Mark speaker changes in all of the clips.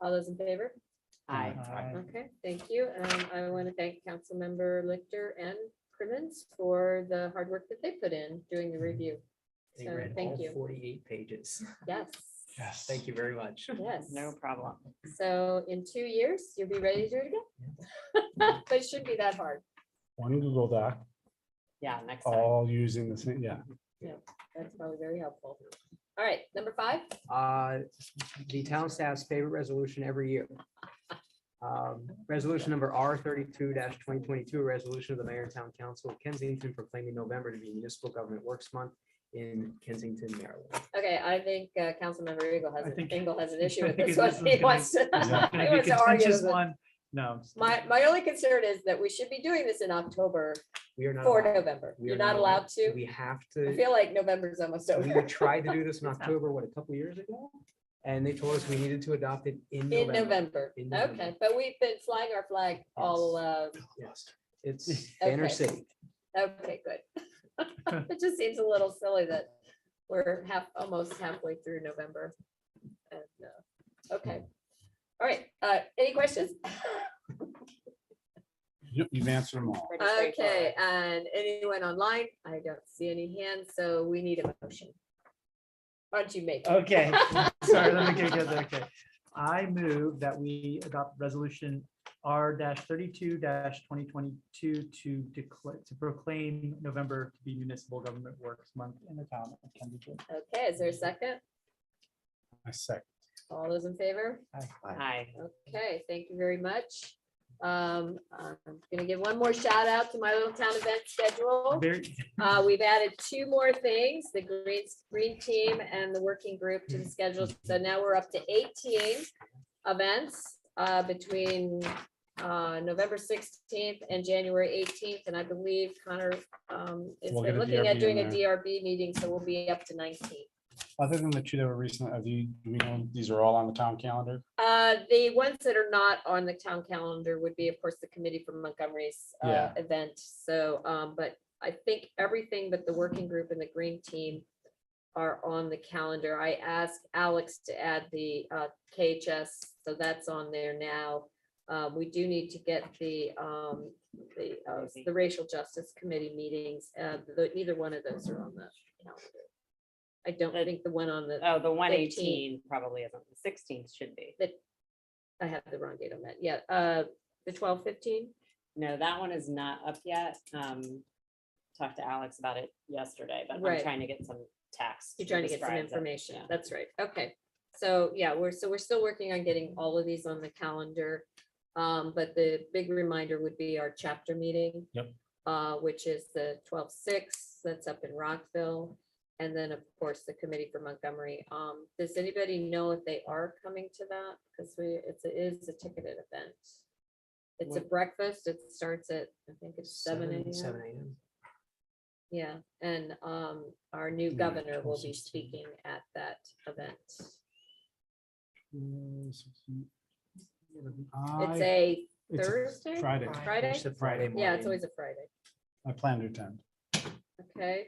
Speaker 1: All those in favor?
Speaker 2: Aye.
Speaker 3: Mm-hmm.
Speaker 1: Okay, thank you. Um, I want to thank Councilmember Lichter and Crimmins for the hard work that they put in doing the review.
Speaker 4: They
Speaker 1: So,
Speaker 4: read
Speaker 1: thank
Speaker 4: all
Speaker 1: you.
Speaker 4: forty-eight pages.
Speaker 1: Yes.
Speaker 2: Yes.
Speaker 4: Thank you very much.
Speaker 1: Yes.
Speaker 2: No problem.
Speaker 1: So in two years, you'll be ready to do it again. But it shouldn't be that hard.
Speaker 3: One Google Doc,
Speaker 2: Yeah, next time.
Speaker 3: all using the same, yeah.
Speaker 1: That's probably very helpful. All right, number five.
Speaker 4: Uh, The town staff's favorite resolution every year. Um, Resolution number R thirty-two twenty twenty-two, resolution of the mayor and town council of Kensington proclaiming November to be municipal government works month in Kensington, Maryland.
Speaker 1: Okay, I think uh, Councilmember Eagle
Speaker 5: I
Speaker 1: has,
Speaker 5: think-
Speaker 1: Engel has an issue
Speaker 5: I
Speaker 1: with
Speaker 5: think
Speaker 1: this
Speaker 5: this is
Speaker 1: one. He
Speaker 5: gonna-
Speaker 1: wants to.
Speaker 3: is that
Speaker 1: he
Speaker 5: Gonna be a
Speaker 1: wants to argue
Speaker 5: contentious
Speaker 1: with it.
Speaker 5: one. No.
Speaker 1: My, my only concern is that we should be doing this in October
Speaker 4: We are not.
Speaker 1: for
Speaker 4: allowed-
Speaker 1: November.
Speaker 4: we are
Speaker 1: You're not allowed to.
Speaker 4: We have
Speaker 1: I
Speaker 4: to.
Speaker 1: feel like November's almost
Speaker 4: We
Speaker 1: over.
Speaker 4: tried to do this in October, what, a couple years ago? And they told us we needed to adopt it in
Speaker 1: In
Speaker 4: November.
Speaker 1: November,
Speaker 4: In November.
Speaker 1: okay, but we've been flying our flag all, uh,
Speaker 4: Yes, It's Banner
Speaker 1: Okay.
Speaker 4: City.
Speaker 1: okay, good. It just seems a little silly that we're half, almost halfway through November. And, uh, Okay, all right, uh, any questions?
Speaker 3: You- You've answered them all.
Speaker 2: Pretty
Speaker 1: Okay,
Speaker 2: straightforward.
Speaker 1: and anyone online? I don't see any hands, so we need a motion. Aren't you making?
Speaker 4: Oh.
Speaker 5: Okay, sorry, let me get, get there, okay. I move that we adopt resolution R thirty-two twenty twenty-two to declare, to proclaim November to be municipal government works month in the town of Kensington.
Speaker 1: Okay, is there a second?
Speaker 3: I second.
Speaker 1: All those in favor?
Speaker 2: Aye.
Speaker 1: Okay, thank you very much. Um, I'm gonna give one more shout out to my little town event schedule.
Speaker 5: Very,
Speaker 1: Uh, we've added two more things, the green, green team and the working group to the schedule. So now we're up to eighteen events, uh, between, uh, November sixteenth and January eighteenth. And I believe Connor, um, is
Speaker 3: We'll get a
Speaker 1: looking at
Speaker 3: DRB in
Speaker 1: doing a
Speaker 3: there.
Speaker 1: DRB meeting, so we'll be up to nineteen.
Speaker 3: Other than the two that were recent, are the, do we know, these are all on the town calendar?
Speaker 1: Uh, the ones that are not on the town calendar would be, of course, the committee from Montgomery's, uh,
Speaker 3: Yeah.
Speaker 1: event, so, um, but I think everything but the working group and the green team are on the calendar. I asked Alex to add the, uh, KHS, so that's on there now. Uh, we do need to get the, um, the, uh, the racial justice committee meetings, uh, the, either one of those are on the calendar. I don't
Speaker 2: The-
Speaker 1: think the one on the,
Speaker 2: Oh, the one eighteen probably isn't. The sixteenth should be.
Speaker 1: I have the wrong date on that, yeah, uh, the twelve fifteen?
Speaker 2: No, that one is not up yet. Um, talked to Alex about it yesterday, but I'm
Speaker 1: Right.
Speaker 2: trying to get some text.
Speaker 1: You're trying to get some information. That's right. Okay. So yeah, we're, so we're still working on getting all of these on the calendar. Um, but the big reminder would be our chapter meeting.
Speaker 3: Yep.
Speaker 1: Uh, which is the 12-6. that's up in Rockville. And then, of course, the committee for Montgomery. Um, does anybody know if they are coming to that? Because we, it's, it is a ticketed event. It's a
Speaker 2: What-
Speaker 1: breakfast. It starts at, I think it's seven AM.
Speaker 4: Seven AM.
Speaker 1: Yeah, and um, our new
Speaker 4: Yeah,
Speaker 1: governor will be
Speaker 4: 12:16.
Speaker 1: speaking at that event. It's
Speaker 3: I-
Speaker 1: a,
Speaker 3: it's a
Speaker 1: Thursday?
Speaker 3: Friday.
Speaker 1: Friday?
Speaker 4: It's a Friday morning.
Speaker 1: yeah, it's always a Friday,
Speaker 3: I plan to attend.
Speaker 1: okay?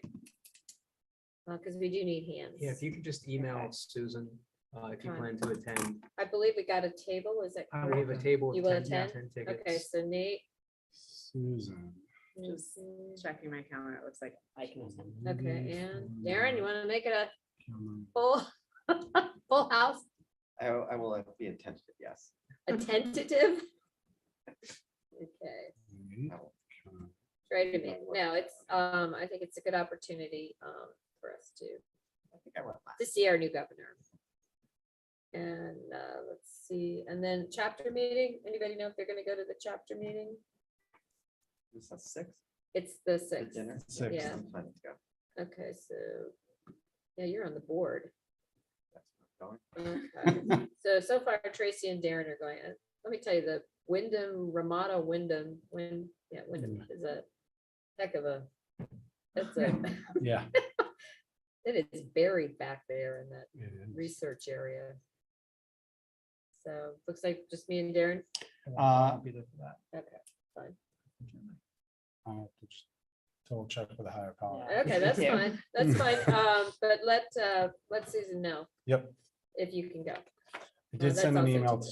Speaker 1: Because we do need hands.
Speaker 4: Yeah, if you could just email
Speaker 2: Okay.
Speaker 4: Susan, uh, if you
Speaker 1: Okay.
Speaker 4: plan to attend,
Speaker 1: I believe we got a table, is that
Speaker 5: I
Speaker 4: we
Speaker 1: correct?
Speaker 4: have a table
Speaker 1: You
Speaker 4: of
Speaker 1: will
Speaker 4: ten,
Speaker 1: attend?
Speaker 4: ten
Speaker 1: Okay,
Speaker 4: tickets.
Speaker 1: so Nate.
Speaker 3: Susan.
Speaker 2: Just
Speaker 1: mhm,
Speaker 2: Checking my calendar, it looks like I can. attend.
Speaker 1: Okay, and Darren, you want to make it a
Speaker 3: Um,
Speaker 1: full, full house,
Speaker 6: I, I will uh, be attentive, yes.
Speaker 1: a tentative? Okay.
Speaker 3: okay.
Speaker 1: Try to make, no, it's, um, I think it's a good opportunity, um, for us to,
Speaker 6: I think I went last.
Speaker 1: to see our new governor. And, uh, let's see, and then chapter meeting, anybody know if they're gonna go to the chapter meeting?
Speaker 6: Is that six?
Speaker 1: It's the
Speaker 6: for
Speaker 1: sixth,
Speaker 6: dinner?
Speaker 3: Six.
Speaker 1: Yeah.
Speaker 6: I'm planning to go.
Speaker 1: okay, so, yeah, you're on the board.
Speaker 6: That's where I'm going.
Speaker 1: Okay. So, so far Tracy and Darren are going, Uh, let me tell you, the Wyndham, Ramada Wyndham, when, yeah, Wyndham is a heck of a, that's a,
Speaker 3: Yeah.
Speaker 1: it is buried back there in that
Speaker 3: it is.
Speaker 1: research area. So looks like just me and Darren.
Speaker 3: Uh,
Speaker 5: I'll be there for that.
Speaker 1: Okay,
Speaker 3: I'll have to just Double check with the higher power.
Speaker 2: Yeah.
Speaker 1: okay, that's
Speaker 2: Yeah.
Speaker 1: fine. That's fine. Um, but let, uh, let Susan know
Speaker 3: Yep.
Speaker 1: if you can go.
Speaker 3: I
Speaker 1: that's
Speaker 3: did send an
Speaker 1: also
Speaker 3: email
Speaker 1: today.